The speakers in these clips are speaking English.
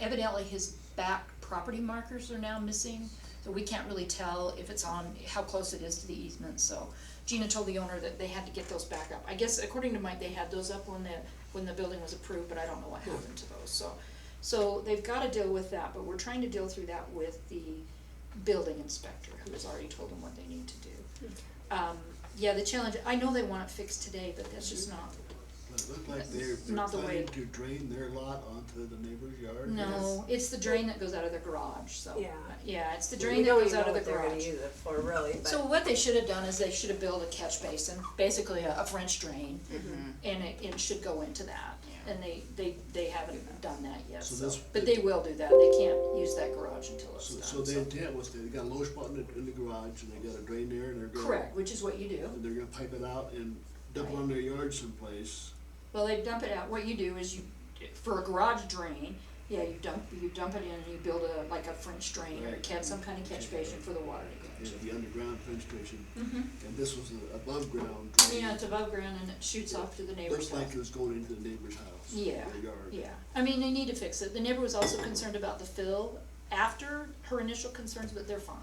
evidently his back property markers are now missing, so we can't really tell if it's on, how close it is to the easement, so. Gina told the owner that they had to get those back up, I guess according to Mike, they had those up when the, when the building was approved, but I don't know what happened to those, so. So they've gotta deal with that, but we're trying to deal through that with the building inspector, who has already told them what they need to do. Um, yeah, the challenge, I know they want it fixed today, but that's just not, But it looked like they're, That's they're not the way. planning to drain their lot onto the neighbor's yard. no, it's the drain that goes out of the garage, so. Yeah. Yeah, it's the We drain that don't goes even out know of the what they're gonna garage. use it for really, but. So what they should have done is they should have built a catch basin, basically a, a French drain, Mm-hmm. and it, it should go into that. And they, they, they haven't done that yet, So so, this- but they will do that, they can't use that garage until it's So, done, so the intent was they got a low spot in the, in the garage and they got a drain there and they're gonna. Correct, which is what you do. And they're gonna pipe it out and dump it on their yard someplace. Well, they dump it out, what you do is you, for a garage drain, yeah, you dump, you dump it in and you build a, like a French drain or a Right. catch, some kind of catch basin for the water to go It'd into. be underground penetration. Mhm. And this was an above ground drain. Yeah, it's above ground and it shoots off to the neighbor's Looks house. like it was going into the neighbor's house. Yeah, Their yard. yeah. I mean, they need to fix it. The neighbor was also concerned about the fill after her initial concerns, but they're fine.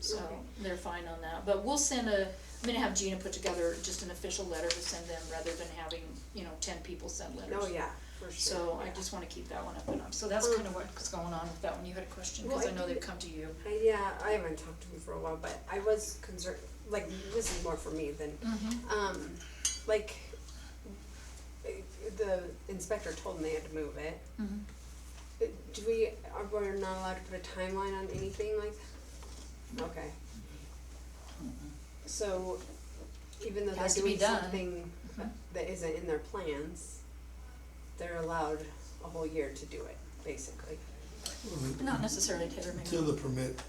So they're fine on that. But we'll send a, I'm gonna have Gina put together just an official letter to send them rather than having, you know, ten people send letters. Oh, yeah, for sure. So I yeah. just wanna keep that one up and up. So that's Well- kinda what's going on with that one. You had a question, Well, cause I I know think- they've come to you. I- Yeah, I haven't talked to him for a while, but I was concerned, like, this is more for me than, Mhm. um, like, the inspector told them they had to move it. Mhm. mm-hmm. Do we, are we not allowed to put a timeline on anything like? Okay. So even though they're Has to be doing done. something that isn't in their plans, they're allowed a whole year to do it, basically. Not necessarily Taylor maybe. Till the permit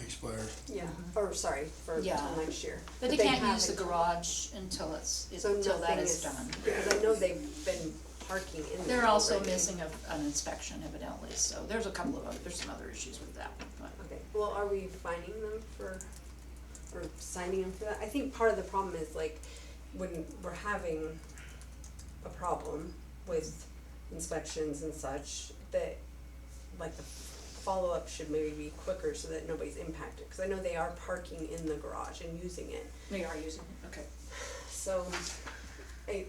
expires. Yeah, or sorry, for till Mm-hmm. Yeah. next year. But they can't have use the it. garage until it's, So until that nothing is done. Because I know they've been parking in there They're also already. missing a, an inspection evidently, so there's a couple of, other- there's some other issues with that, but. Okay, well, are we fining them for, or signing them for that? I think part of the problem is like, when we're having a problem with inspections and such, that, like, the follow-up should maybe be quicker so that nobody's impacted, cause I know they are parking in the garage and using it, They are using it, okay. so, I,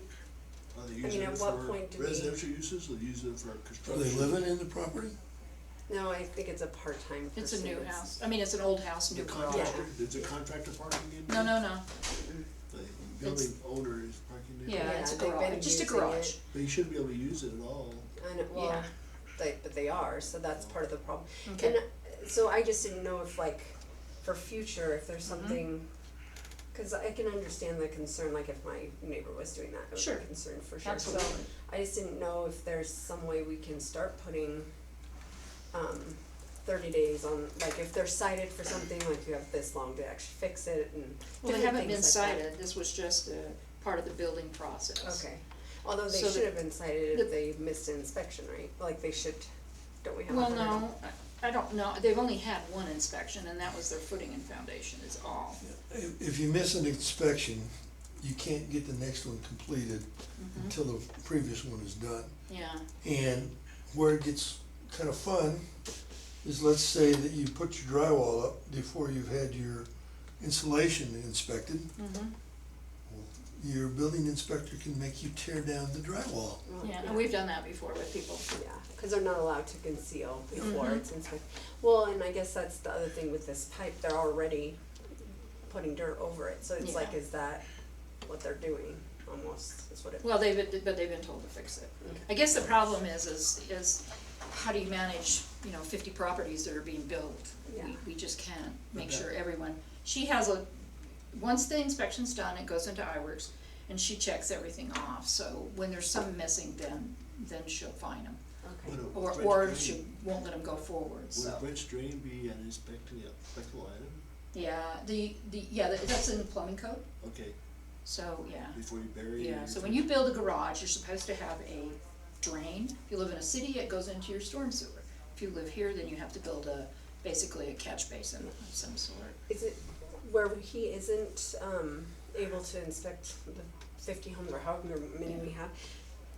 Are they mean, using at it what for point do we- residential uses or using it for Are construction? they living in the property? no, I think it's a part-time person. It's a new house, I mean, it's an old house, The new garage. contractor, is the contractor parking in No, there? no, no, The building owner is parking in there? yeah, it's a Yeah, they've been garage, just a using garage. it. They should be able to use it at all. I know, well, Yeah. they, but they are, so that's part of the problem. Okay. And uh, so I just didn't know if like, for future, if Mm-hmm. there's something, cause I can understand the concern, like if my neighbor was doing that, I Sure. would be concerned for sure. So Absolutely. I just didn't know if there's some way we can start putting, um, thirty days on, like if they're cited for something, like you have this long to actually fix it and Well, they different haven't been things like that. cited, this was just a part of the building process. Okay, although they So should the- have been cited the- if they missed an inspection, right? Like they should, don't we have a Well, hundred? no, I, I don't know, they've only had one inspection, and that was their footing and foundation is all. If, if you miss an inspection, you can't get the next one completed until the previous one is done. Yeah, And where it gets kind of fun is let's say that you put your drywall up before you've had your insulation inspected. mhm, Your building inspector can make you tear down the drywall. Well, yeah, and we've done that before with people. Yeah, because they're not allowed to conceal before Mhm. it's inspected. Well, and I guess that's the other thing with this pipe, they're already putting dirt over it, so it's like, Yeah. is that what they're doing, almost, is what it. Well, they've, been- but they've been told to fix it. I guess the problem is, is, is how do you manage, you know, fifty properties that are being built? Yeah. We, we just can't make Okay. sure everyone, she has a, once the inspection's done, it goes into iWorks, and she checks everything off, so when there's some missing, then, then she'll find them. Okay, Would a Or, French or drain- she won't let them go forward, Would a so. French drain be an inspecting, inspectable item? Yeah, the, the, yeah, that- that's in the plumbing code, Okay, so, yeah. before you bury it. Yeah, so when you build a garage, you're supposed to have a drain. If you live in a city, it goes into your storm sewer. If you live here, then you have to build a, basically a catch basin of some sort. is it where he isn't, um, able to inspect the fifty homes or however many we have?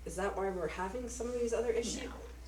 Is that why we're having some of these other issues? No.